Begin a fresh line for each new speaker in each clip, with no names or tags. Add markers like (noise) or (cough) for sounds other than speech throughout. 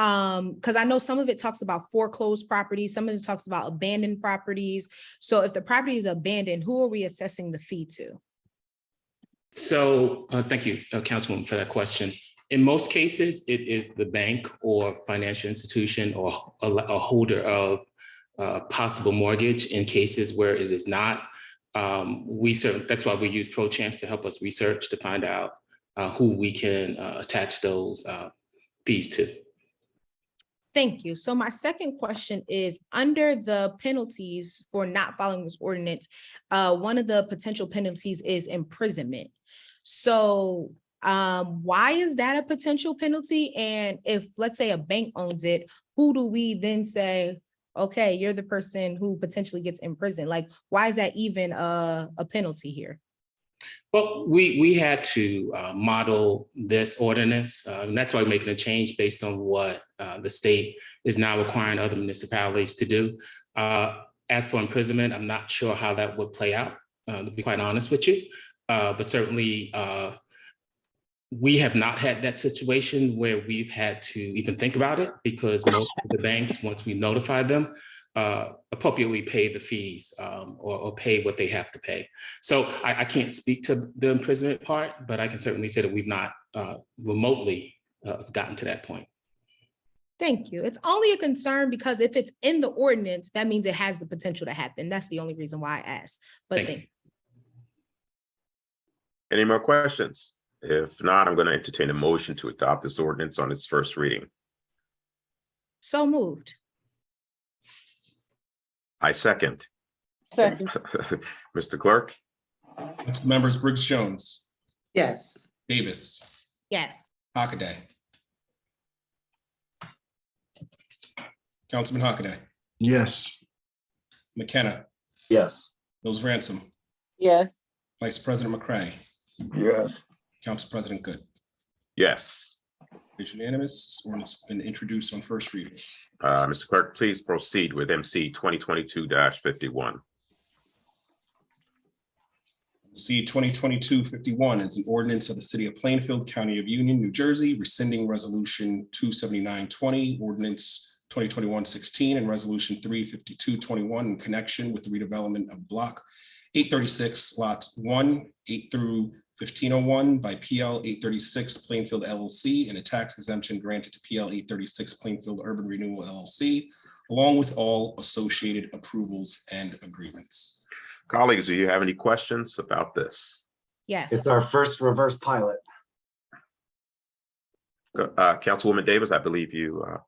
Um, because I know some of it talks about foreclosed properties, some of it talks about abandoned properties. So if the property is abandoned, who are we assessing the fee to?
So, uh, thank you, uh, Councilwoman, for that question. In most cases, it is the bank or financial institution or a a holder of uh, possible mortgage in cases where it is not. Um, We serve, that's why we use ProChamps to help us research to find out uh, who we can uh, attach those uh, fees to.
Thank you. So my second question is, under the penalties for not following this ordinance, uh, one of the potential penalties is imprisonment. So, um, why is that a potential penalty? And if, let's say, a bank owns it, who do we then say, okay, you're the person who potentially gets imprisoned? Like, why is that even a, a penalty here?
Well, we, we had to uh, model this ordinance, uh, and that's why we're making a change based on what uh, the state is now requiring other municipalities to do. Uh, As for imprisonment, I'm not sure how that would play out, uh, to be quite honest with you. Uh, But certainly, uh, we have not had that situation where we've had to even think about it because most of the banks, once we notify them, uh, appropriately pay the fees um, or or pay what they have to pay. So I, I can't speak to the imprisonment part, but I can certainly say that we've not uh, remotely uh, gotten to that point.
Thank you. It's only a concern because if it's in the ordinance, that means it has the potential to happen. That's the only reason why I asked. But
Thank
thank
Any more questions? If not, I'm going to entertain a motion to adopt this ordinance on its first reading.
So moved.
I second. (laughs)
Second,
Mr. Clerk?
Council members Briggs Jones,
yes.
Davis,
Yes.
Hockaday. Councilman Hockaday,
Yes.
McKenna,
Yes.
Mills Ransom,
Yes.
Vice President McCray,
Yes.
Council President Good.
Yes.
It's unanimous. This ordinance has been introduced on first reading.
Uh, Mr. Clerk, please proceed with MC twenty twenty-two fifty-one.
C 2022-51 is an ordinance of the City of Plainfield, County of Union, New Jersey, rescinding Resolution 27920, Ordinance 2021-16, and Resolution 35221 in connection with the redevelopment of Block 836, Lot 1, 8 through 1501 by PL 836 Plainfield LLC, and a tax exemption granted to PL 836 Plainfield Urban Renewal LLC, along with all associated approvals and agreements.
Colleagues, do you have any questions about this?
Yes.
It's our first reverse pilot.
Uh, Councilwoman Davis, I believe you uh,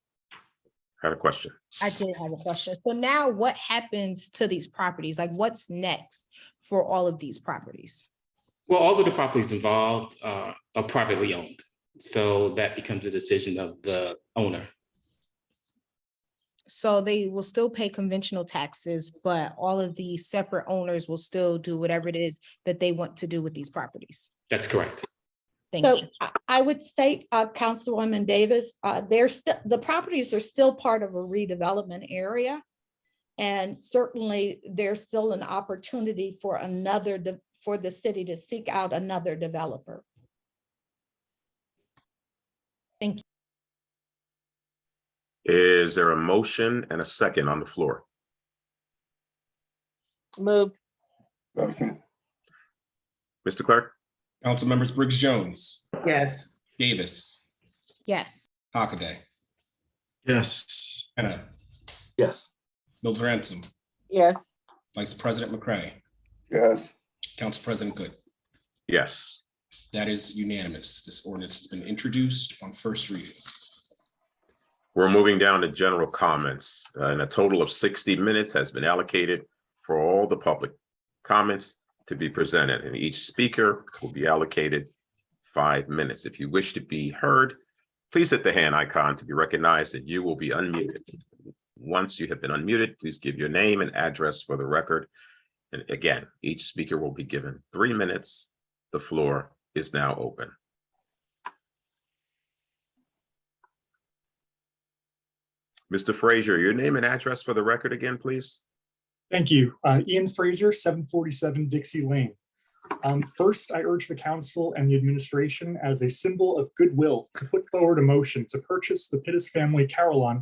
had a question.
I did have a question. So now what happens to these properties? Like what's next for all of these properties?
Well, all of the properties involved uh, are privately owned. So that becomes a decision of the owner.
So they will still pay conventional taxes, but all of the separate owners will still do whatever it is that they want to do with these properties.
That's correct.
Thank
So
you.
I- I would state, uh, Councilwoman Davis, uh, they're still, the properties are still part of a redevelopment area. And certainly there's still an opportunity for another, de- for the city to seek out another developer.
Is there a motion and a second on the floor?
Move,
Mr. Clerk?
Council members Briggs Jones,
yes.
Davis,
Yes.
Hockaday,
Yes.
Hannah,
Yes.
Mills Ransom,
Yes.
Vice President McCray,
Yes.
Council President Good.
Yes.
That is unanimous. This ordinance has been introduced on first reading.
We're moving down to general comments, uh, and a total of sixty minutes has been allocated for all the public comments to be presented, and each speaker will be allocated five minutes. If you wish to be heard, please hit the hand icon to be recognized, and you will be unmuted. Once you have been unmuted, please give your name and address for the record. And again, each speaker will be given three minutes. The floor is now open. Mr. Frazier, your name and address for the record again, please?
Thank you. Uh, Ian Fraser, seven forty-seven Dixie Lane. Um, First, I urge the council and the administration as a symbol of goodwill to put forward a motion to purchase the Pittis family Carillon